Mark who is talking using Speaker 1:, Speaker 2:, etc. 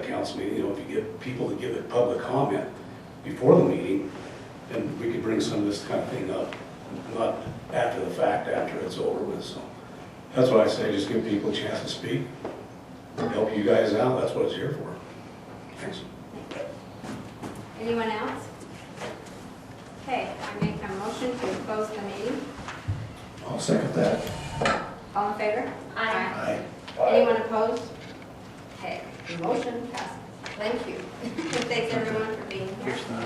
Speaker 1: council meeting, you know, if you get people to give a public comment before the meeting, then we could bring some of this kind of thing up, not after the fact, after it's over with, so. That's why I say, just give people a chance to speak, help you guys out, that's what it's here for. Thanks.
Speaker 2: Anyone else? Okay, I make a motion to close the meeting.
Speaker 1: I'll second that.
Speaker 2: All in favor?
Speaker 3: Aye.
Speaker 2: Anyone opposed? Okay, the motion passes. Thank you. Thanks everyone for being here.